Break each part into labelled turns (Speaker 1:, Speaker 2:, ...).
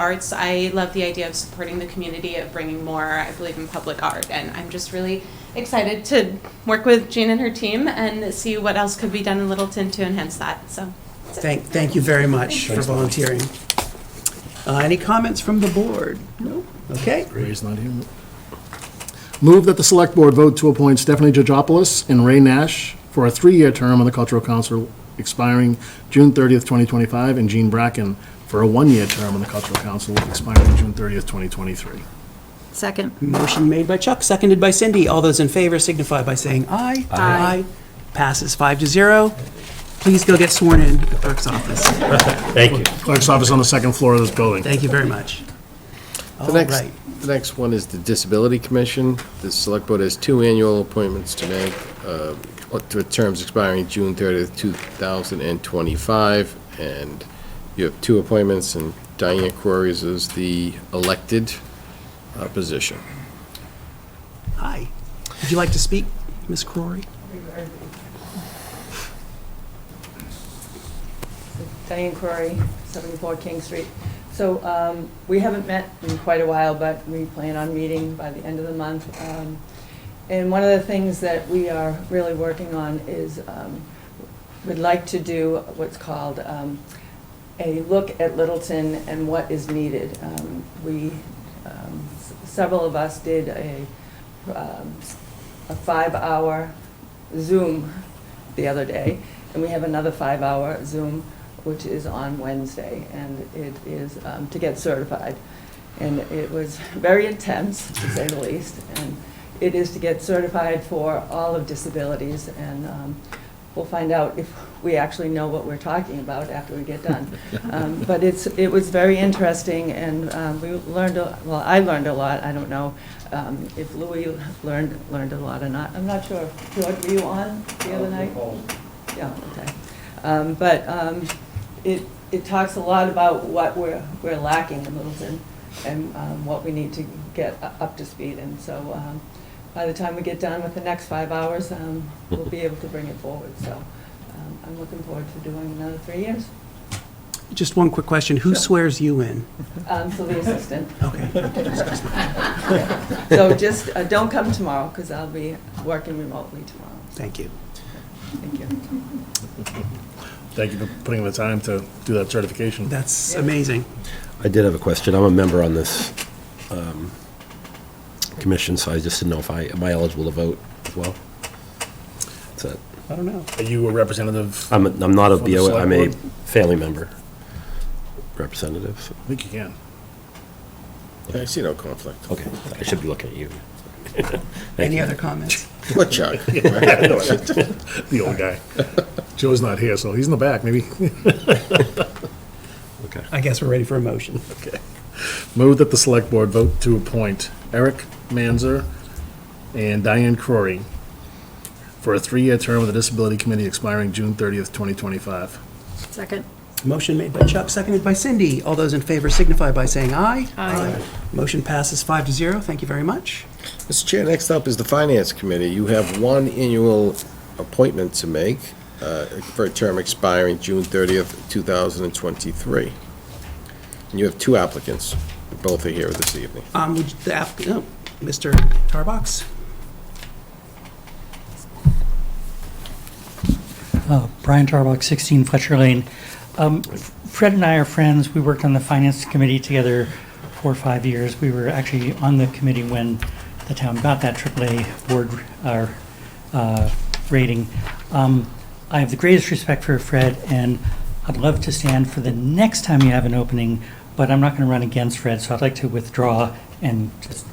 Speaker 1: arts. I love the idea of supporting the community, of bringing more. I believe in public art, and I'm just really excited to work with Jean and her team and see what else could be done in Littleton to enhance that. So, that's it.
Speaker 2: Thank, thank you very much for
Speaker 3: Thanks, Molly.
Speaker 2: volunteering. Uh, Any comments from the board? No? Okay.
Speaker 4: Ray's not here. Move that the Select Board vote to appoint Stephanie Georgopoulos and Ray Nash for a three-year term on the Cultural Council expiring June 30th, 2025, and Jean Bracken for a one-year term on the Cultural Council expiring June 30th, 2023.
Speaker 5: Second.
Speaker 2: Motion made by Chuck, seconded by Cindy. All those in favor signify by saying aye. Aye. Passes five to zero. Please go get sworn in at the clerk's office.
Speaker 3: Thank you.
Speaker 4: Clerk's office on the second floor of this building.
Speaker 2: Thank you very much. All
Speaker 6: The next,
Speaker 2: Oh, right.
Speaker 6: the next one is the Disability Commission. The Select Board has two annual appointments to make, uh, with terms expiring June 30th, 2025, and you have two appointments, and Diane Quarries is the elected uh, position.
Speaker 2: Hi. Would you like to speak, Ms. Crory?
Speaker 7: Diane Crory, 74 King Street. So um, we haven't met in quite a while, but we plan on meeting by the end of the month. Um, And one of the things that we are really working on is um, we'd like to do what's called um, a look at Littleton and what is needed. Um, We, um, s- several of us did a um, a five-hour Zoom the other day, and we have another five-hour Zoom, which is on Wednesday, and it is um, to get certified. And it was very intense, to say the least, and it is to get certified for all of disabilities, and um, we'll find out if we actually know what we're talking about after we get done. Um, But it's, it was very interesting, and um, we learned, a- well, I learned a lot, I don't know um, if Louis learned, learned a lot or not. I'm not sure, George, were you on the other night? Yeah, okay. Um, But um, it, it talks a lot about what we're, we're lacking in Littleton and um, what we need to get u- up to speed. And so um, by the time we get done with the next five hours, um, we'll be able to bring it forward. So um, I'm looking forward to doing another three years.
Speaker 2: Just one quick question. Who swears you in?
Speaker 7: Um, So the assistant.
Speaker 2: Okay.
Speaker 7: So just, uh, don't come tomorrow because I'll be working remotely tomorrow.
Speaker 2: Thank you.
Speaker 7: Thank you.
Speaker 4: Thank you for putting in the time to do that certification.
Speaker 2: That's amazing.
Speaker 8: I did have a question. I'm a member on this um, commission, so I just didn't know if I, am I eligible to vote as well? That's it.
Speaker 2: I don't know.
Speaker 4: Are you a representative?
Speaker 8: I'm, I'm not a
Speaker 4: For the
Speaker 8: BOA, I'm a
Speaker 4: select
Speaker 8: family member representative. so-
Speaker 4: I think you can.
Speaker 6: I see no conflict.
Speaker 8: Okay, I should be looking at you. Thank
Speaker 2: Any
Speaker 8: you.
Speaker 2: other comments?
Speaker 6: What, Chuck?
Speaker 4: The old guy. Joe's not here, so he's in the back, maybe.
Speaker 8: Okay.
Speaker 2: I guess we're ready for a motion.
Speaker 4: Move that the select board vote to appoint Eric Manzer and Diane Crory for a three-year term of the Disability Committee expiring June 30th, 2025.
Speaker 5: Second.
Speaker 2: Motion made by Chuck, seconded by Cindy. All those in favor signify by saying aye. Aye. Motion passes five to zero. Thank you very much.
Speaker 6: Mr. Chair, next up is the Finance Committee. You have one annual appointment to make uh, for a term expiring June 30th, 2023. And you have two applicants. Both are here this evening.
Speaker 2: Um, would the app, oh, Mr. Tarbox?
Speaker 9: Uh, Brian Tarbox, 16 Fletcher Lane. Um, F- Fred and I are friends. We worked on the finance committee together for five years. We were actually on the committee when the town got that AAA board uh, uh, rating. Um, I have the greatest respect for Fred, and I'd love to stand for the next time you have an opening, but I'm not going to run against Fred, so I'd like to withdraw and just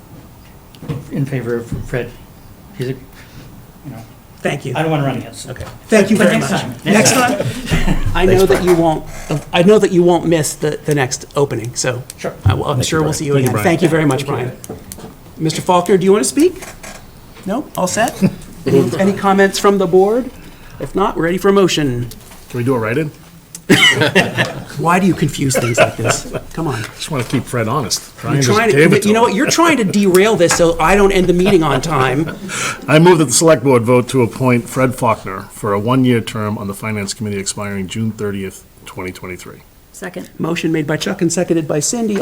Speaker 9: in favor of Fred. He's a, you know,
Speaker 2: Thank you.
Speaker 9: I don't want to run against him. Okay.
Speaker 2: Thank you
Speaker 9: But
Speaker 2: very much.
Speaker 9: next time.
Speaker 2: Next time? I know that you won't, I know that you won't miss the, the next opening, so.
Speaker 9: Sure.
Speaker 2: I will- I'm sure we'll see you again. Thank you very much, Brian. Mr. Faulkner, do you want to speak? No? All set? Any any comments from the board? If not, we're ready for a motion.
Speaker 4: Can we do it right in?
Speaker 2: Why do you confuse things like this? Come on.
Speaker 4: Just want to keep Fred honest.
Speaker 2: You're
Speaker 4: Brian just
Speaker 2: trying
Speaker 4: gave it
Speaker 2: to,
Speaker 4: to
Speaker 2: you know what,
Speaker 4: him.
Speaker 2: you're trying to derail this so I don't end the meeting on time.
Speaker 4: I move that the select board vote to appoint Fred Faulkner for a one-year term on the Finance Committee expiring June 30th, 2023.
Speaker 5: Second.
Speaker 2: Motion made by Chuck and seconded by Cindy.